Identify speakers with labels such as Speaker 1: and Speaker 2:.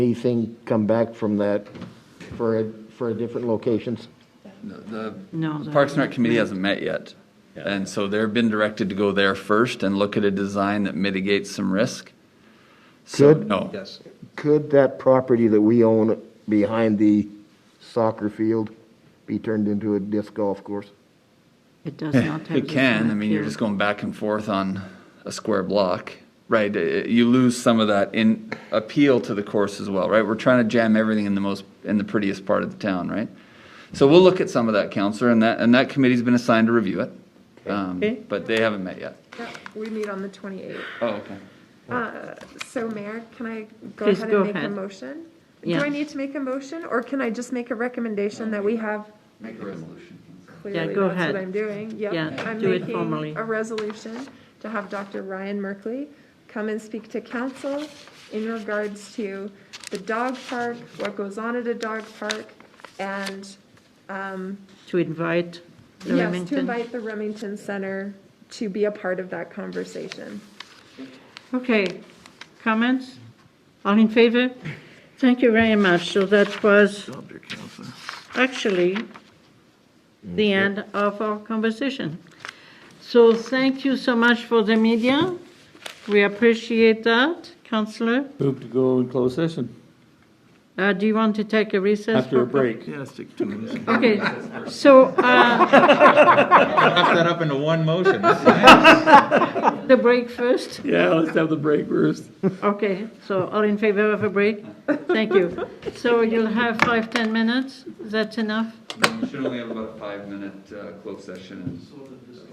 Speaker 1: anything come back from that for, a- for different locations?
Speaker 2: The
Speaker 3: No,
Speaker 2: the
Speaker 3: the-
Speaker 2: Parks and Rec Committee hasn't met yet. And so they've been directed to go there first and look at a design that mitigates some risk. So,
Speaker 1: Good.
Speaker 2: No.
Speaker 4: Yes.
Speaker 1: Could that property that we own behind the soccer field be turned into a disc golf course?
Speaker 3: It does not have.
Speaker 2: Eh, It can, I mean, you're just going back and forth on a square block, right? Uh, You lose some of that in appeal to the course as well, right? We're trying to jam everything in the most, in the prettiest part of the town, right? So we'll look at some of that, counselor, and that, and that committee's been assigned to review it. Um,
Speaker 3: Okay.
Speaker 2: But they haven't met yet.
Speaker 5: Yeah, we meet on the 28th.
Speaker 2: Oh, okay.
Speaker 5: So Mayor, can I go
Speaker 3: Please
Speaker 5: ahead
Speaker 3: go
Speaker 5: and make a
Speaker 3: ahead.
Speaker 5: motion? Do
Speaker 3: Yeah.
Speaker 5: I need to make a motion, or can I just make a recommendation that we have
Speaker 2: Make a resolution.
Speaker 5: clearly
Speaker 3: go
Speaker 5: that's
Speaker 3: ahead.
Speaker 5: what I'm doing? Yep,
Speaker 3: Yeah,
Speaker 5: I'm
Speaker 3: do it
Speaker 5: making
Speaker 3: formally.
Speaker 5: A resolution to have Dr. Ryan Merkley come and speak to council in regards to the dog park, what goes on at a dog park, and, um,
Speaker 3: To invite the
Speaker 5: yes, to
Speaker 3: Remington.
Speaker 5: invite the Remington Center to be a part of that conversation.
Speaker 3: Okay, comments? All in favor? Thank you very much. So that was actually the end of our conversation. So thank you so much for the media. We appreciate that, Counselor.
Speaker 6: Move to go in closed session
Speaker 3: Uh, do you want to take a recess?
Speaker 6: after a
Speaker 3: for-
Speaker 6: break.
Speaker 3: Okay, so, uh,
Speaker 4: Wrap that up into one motion.
Speaker 3: the break first.
Speaker 6: Yeah, let's have the break first.
Speaker 3: Okay, so all in favor of a break? Thank you. So you'll have five, 10 minutes? That's enough?
Speaker 2: We should only have about a five-minute, uh, closed session and